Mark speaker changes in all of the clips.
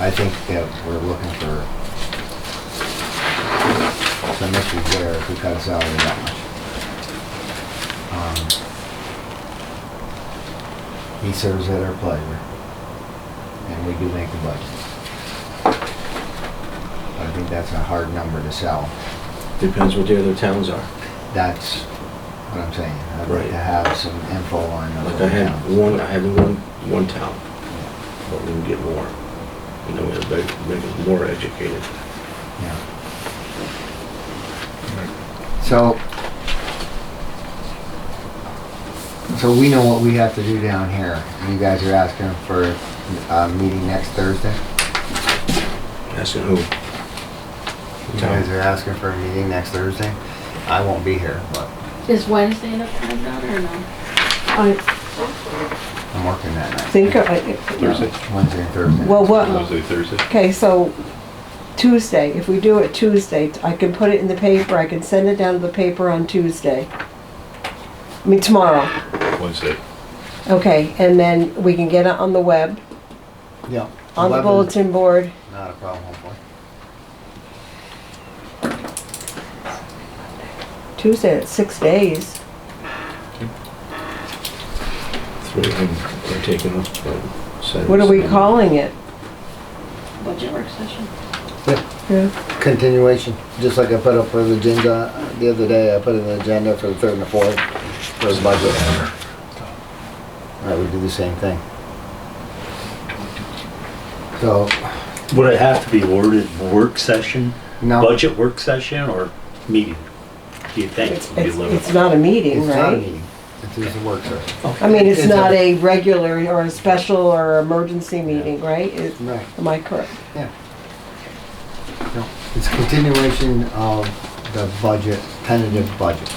Speaker 1: I think that we're looking for some issues there if we cut his salary that much. Um, He serves at our pleasure, and we do make the budget. I think that's a hard number to sell.
Speaker 2: Depends what the other towns are.
Speaker 1: That's what I'm saying. I'd like
Speaker 2: Right.
Speaker 1: to have some info on
Speaker 2: Like I
Speaker 1: other
Speaker 2: had
Speaker 1: towns.
Speaker 2: one, I had one, one town, but we can get more. You know, it'll make, make us more educated.
Speaker 1: Yeah. So, so we know what we have to do down here. You guys are asking for a meeting next Thursday?
Speaker 2: Asking who?
Speaker 1: You
Speaker 2: Town.
Speaker 1: guys are asking for a meeting next Thursday? I won't be here, but
Speaker 3: Is Wednesday enough time, Donna, or no?
Speaker 4: I
Speaker 1: I'm working that night.
Speaker 4: think, I-
Speaker 5: Thursday.
Speaker 1: Wednesday and Thursday.
Speaker 4: well, what,
Speaker 5: Wednesday, Thursday.
Speaker 4: okay, so Tuesday, if we do it Tuesday, I can put it in the paper, I can send it down to the paper on Tuesday. I mean, tomorrow,
Speaker 5: Wednesday.
Speaker 4: okay, and then we can get it on the web,
Speaker 1: Yeah.
Speaker 4: on the
Speaker 1: 11.
Speaker 4: bulletin board.
Speaker 1: Not a problem, hopefully.
Speaker 4: Tuesday, that's six days.
Speaker 2: Three of them are taken up, but. said-
Speaker 4: What are we calling it?
Speaker 3: Budget work session?
Speaker 4: Yeah.
Speaker 1: Continuation, just like I put up for the agenda the other day, I put in the agenda for the third and the fourth for the budget. I would do the same thing. So,
Speaker 6: Would it have to be worded work session,
Speaker 1: no,
Speaker 6: budget work session, or meeting? Do you think?
Speaker 4: It's,
Speaker 6: would be
Speaker 4: it's
Speaker 6: livable?
Speaker 4: it's not a
Speaker 1: it's
Speaker 4: meeting,
Speaker 1: not a
Speaker 4: right?
Speaker 1: meeting, it's just a work session.
Speaker 4: I mean, it's
Speaker 1: It's
Speaker 4: not
Speaker 1: a-
Speaker 4: a regular or a special or emergency meeting, right? It-
Speaker 1: Right,
Speaker 4: Am I correct?
Speaker 1: yeah. No, It's continuation of the budget, tentative budget,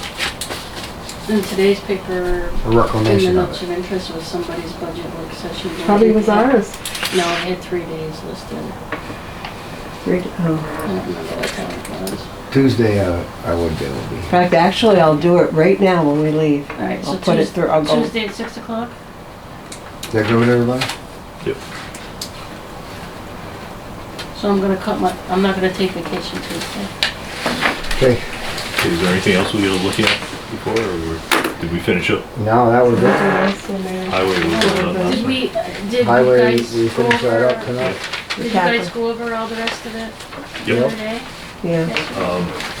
Speaker 3: In today's paper,
Speaker 1: a
Speaker 3: in the
Speaker 1: reclamation
Speaker 3: notes
Speaker 1: of it.
Speaker 3: of interest was somebody's budget work session.
Speaker 4: Probably was ours.
Speaker 3: No, I had three days listed.
Speaker 4: Three- oh.
Speaker 3: I don't remember what time it was.
Speaker 1: Tuesday, uh, I would be able to be
Speaker 4: In
Speaker 1: here.
Speaker 4: fact, actually, I'll do it right now when we leave.
Speaker 3: All right, so
Speaker 4: I'll put it
Speaker 3: Tues-
Speaker 4: through, I'll go.
Speaker 3: Tuesday at six o'clock?
Speaker 1: Is that good with everybody?
Speaker 5: Yep.
Speaker 3: So I'm gonna cut my, I'm not gonna take vacation Tuesday.
Speaker 1: Okay,
Speaker 5: Is there anything else we gotta look at before, or did we finish up?
Speaker 1: now that was it.
Speaker 5: Highway was, uh,
Speaker 3: Did we, did you
Speaker 1: Highway,
Speaker 3: guys
Speaker 1: we
Speaker 3: go
Speaker 1: finished that up
Speaker 3: over,
Speaker 1: tonight.
Speaker 3: did you guys go over all the rest of it? the
Speaker 5: Yep.
Speaker 3: other day?
Speaker 4: Yeah,
Speaker 5: Um,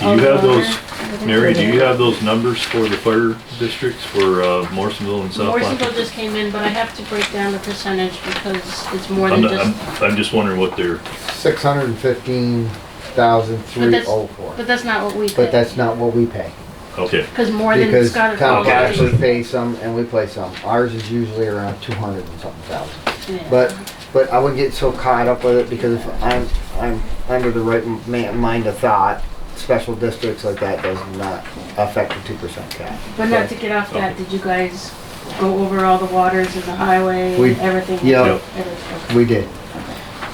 Speaker 3: All
Speaker 5: do you
Speaker 3: the
Speaker 5: have those,
Speaker 3: water, everything?
Speaker 5: Mary, do you have those numbers for the fire districts for, uh, Morrisonville and South
Speaker 3: Morrisonville
Speaker 5: Platte?
Speaker 3: just came in, but I have to break down the percentage because it's more
Speaker 5: I'm,
Speaker 3: than
Speaker 5: not-
Speaker 3: just,
Speaker 5: I'm, I'm just wondering what they're,
Speaker 1: Six hundred and fifteen thousand
Speaker 3: but
Speaker 1: three
Speaker 3: that's,
Speaker 1: oh
Speaker 3: but
Speaker 1: four.
Speaker 3: that's not what we did.
Speaker 1: But that's not what we pay.
Speaker 5: okay,
Speaker 3: Because more than
Speaker 1: Because
Speaker 3: Scott.
Speaker 1: town
Speaker 5: Okay.
Speaker 1: actually pays some and we play some. Ours is usually around two hundred and something thousand. But, but I wouldn't get so caught up with it because if I'm, I'm under the right ma- mind of thought, special districts like that does not affect the two percent cap.
Speaker 3: But not to get off that, did you guys go over all the waters and the highway
Speaker 1: We-
Speaker 3: and everything?
Speaker 1: yeah.
Speaker 5: Yep.
Speaker 3: Everything.
Speaker 1: We did.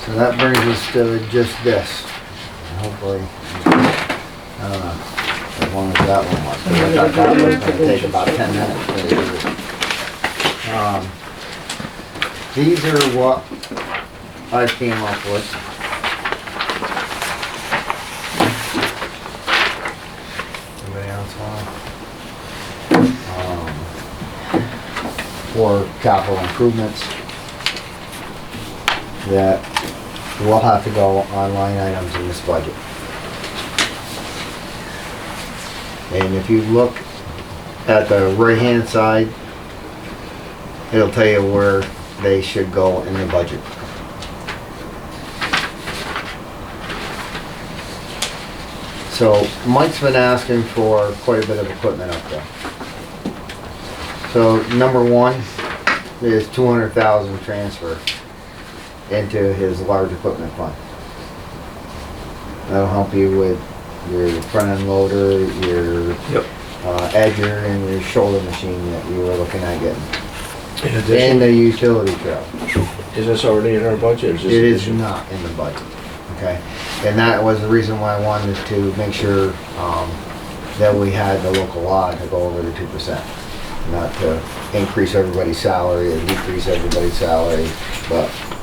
Speaker 1: So that brings us to just this. Hopefully, I don't know, as long as that one was. 'cause I thought that was gonna take about ten minutes. but it didn't. Um, These are what I came up with. Anybody else want? Um, For capital improvements that will have to go on line items in this budget. And if you look at the right-hand side, it'll tell you where they should go in the budget. So Mike's been asking for quite a bit of equipment up there. So number one is two hundred thousand transfer into his large equipment fund. That'll help you with your front end loader, your
Speaker 2: Yep.
Speaker 1: uh, edger, and your shoulder machine that you were looking at getting,
Speaker 2: In
Speaker 1: and
Speaker 2: addition,
Speaker 1: the utility truck.
Speaker 2: is this already in our budget?
Speaker 1: It is not in the budget, okay? And that was the reason why I wanted to make sure um, that we had the local law to go over the two percent. Not to increase everybody's salary or decrease everybody's salary, but